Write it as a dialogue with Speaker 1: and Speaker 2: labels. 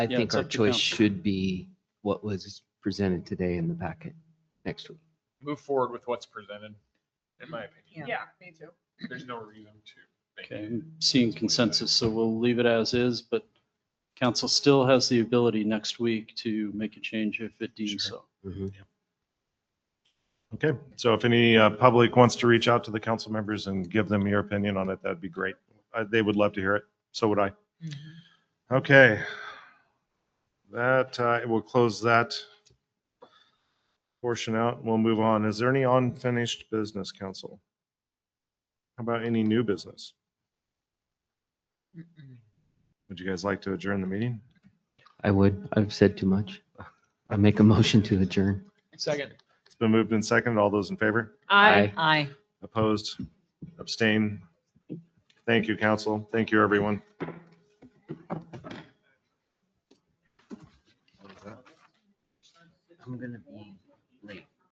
Speaker 1: I
Speaker 2: Yeah,
Speaker 1: think
Speaker 2: it's
Speaker 1: our
Speaker 2: up to
Speaker 1: choice
Speaker 2: council.
Speaker 1: should be what was presented today in the packet next week.
Speaker 3: move forward with what's presented, in my opinion.
Speaker 4: Yeah, me too.
Speaker 3: There's no reason to. make
Speaker 2: Okay,
Speaker 3: it.
Speaker 2: I'm seeing consensus, so we'll leave it as is, but council still has the ability next week to make a change if it deems so.
Speaker 5: Okay, so if any uh, public wants to reach out to the council members and give them your opinion on it, that'd be great. Uh, They would love to hear it. So would I. Okay. That, uh, we'll close that portion out. We'll move on. Is there any unfinished business, council? How about any new business? Would you guys like to adjourn the meeting?
Speaker 1: I would, I've said too much. I make a motion to adjourn.
Speaker 3: Second.
Speaker 5: It's been moved and seconded. All those in favor?
Speaker 1: Aye.
Speaker 4: Aye.
Speaker 5: Opposed? Abstain? Thank you, council. Thank you, everyone.
Speaker 1: I'm gonna be late.